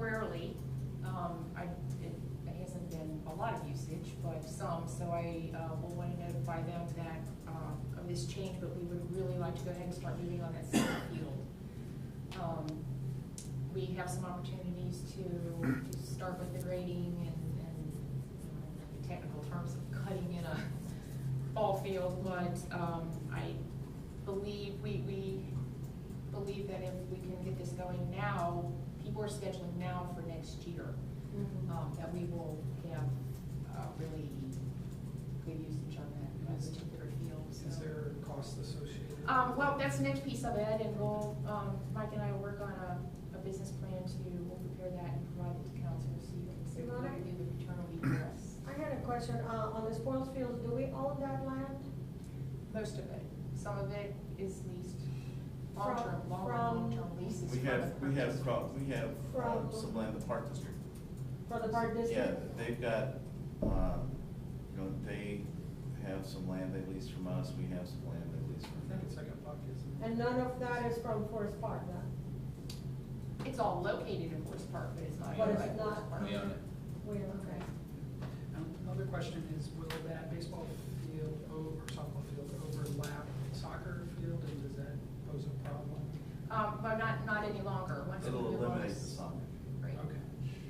temporarily. Um, I, it it hasn't been a lot of usage, but some, so I, uh, will want to notify them that, um, of this change, but we would really like to go ahead and start moving on that soccer field. Um, we have some opportunities to, to start with the grading and, and uh, the technical terms of cutting in a ball field, but, um, I believe, we, we believe that if we can get this going now, people are scheduling now for next year, um, that we will have, uh, really good usage on that, that particular field, so. Is there a cost associated? Um, well, that's the next piece of it, and we'll, um, Mike and I will work on a, a business plan to, we'll prepare that and provide it to council, so you can see what we can do with return on egress. I had a question, uh, on the sports fields, do we own that land? Most of it, some of it is leased long-term, From- long, from- long-term leases. We from have, the we have, purchase. prob- we have um, From- some land in the park district. For the park Yeah, district? they've got, um, you know, they have some land they lease from us, we have some land they lease I from think them. it's like a buck, isn't it? And none of that is from Forest Park, then? It's all located in Forest Park, but it's not. But owned it's by not- Forest Park. We own it. We are, okay. Um, Another question is, will that baseball field over, softball field overlap soccer field, and does that pose a problem? Um, but not, not any longer, once we It'll move on. eliminate the it's- soccer. Right. Okay,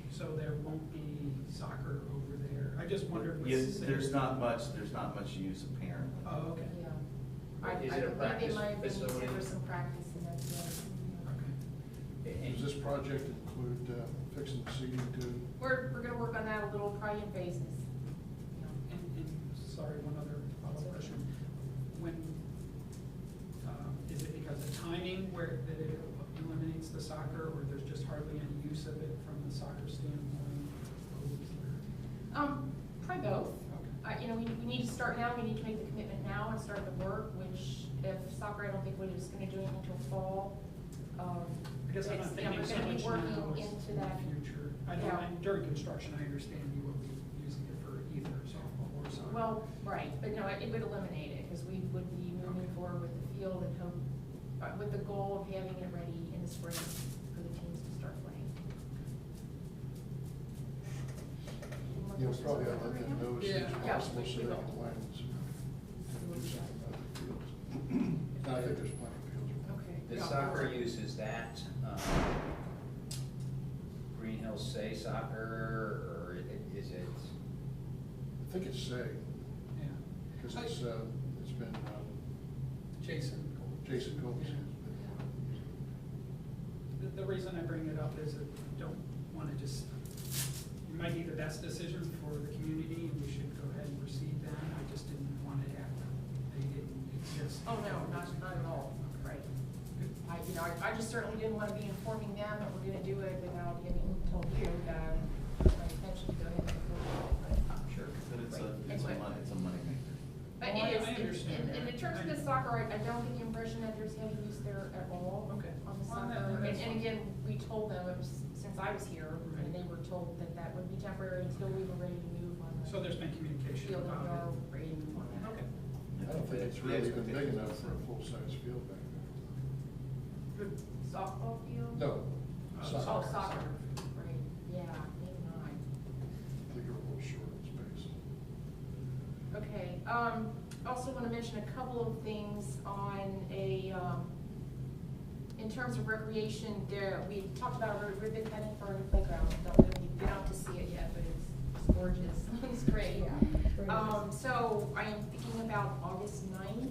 so there won't be soccer over there, I just wondered. what's Yes, the- there's not much, there's not much use apparently. Oh, okay, Yeah. um, I, I Is it a believe it practice might have been used facility? for some practice, and that's, uh, okay. Does this project include uh, fixing the seating too? We're, we're gonna work on that a little, probably in phases. you know. And, and, sorry, one other follow-up question. When, um, is it because of timing where, that it eliminates the soccer, or there's just hardly any use of it from the soccer standpoint? Or is there- Um, probably both. Okay, Uh, you know, we, we need to start now, we need to make the commitment now and start the work, which if soccer, I don't think we're just gonna do it until fall. Um, I guess I'm it's- not you know, thinking so much We're gonna be now, working it's into in that. the future. I Yeah. don't, mind- during construction, I understand you will be using it for either softball or soccer. Well, right, but no, it would eliminate it, because we would be moving forward with the field and hope, uh, with the goal of having it ready in the spring for the teams to start playing. Any more Yeah, it's questions probably on I'd that let right them now? know as soon Yeah. as possible Yeah. so they can plan to do something about the fields. And I think there's plenty of fields. Okay. The Yeah. soccer use is that, um, Green Hills Say Soccer, or i- is it? I think it's safe, Yeah. because I- it's, uh, it's been, um, Jason. Jason Combs has Yeah. The, the reason I bring it up is that I don't wanna just, it might be the best decision for the community, and we should go ahead and proceed then, I just didn't want it after they didn't exist. Oh, no, not, not at all, right. I, you know, I, I just certainly didn't want to be informing them that we're gonna do it without getting told you that it's my intention to go ahead and approve it, but. Sure. But it's a, it's a money, it's a moneymaker. But Oh, I- it is, I it's- understand and, and in that. terms of the I- soccer, I, I don't get the impression that there's heavy use there at all. Okay. On the Well, that- soccer, and, that's and fine. again, we told them, it was- since I was here, and Right. they were told that that would be temporary until we were ready to move on the. So there's been communication Field and about go, ready to move on it. that. Okay, I don't think it's The really even big expectation enough is- for a full-size field back there. good. Softball field? No. Uh, Oh, soccer. Soccer. soccer, right, yeah, maybe not. I think you're a little short in space. Okay, um, also want to mention a couple of things on a, um, in terms of recreation, there, we talked about a ribbon cutting for the playground. Don't know if you've been out to see it yet, but it's gorgeous. It's great. Yeah, it's very nice. Um, so I am thinking about August ninth um, uh, um, uh, um, Uh, uh, Uh, uh,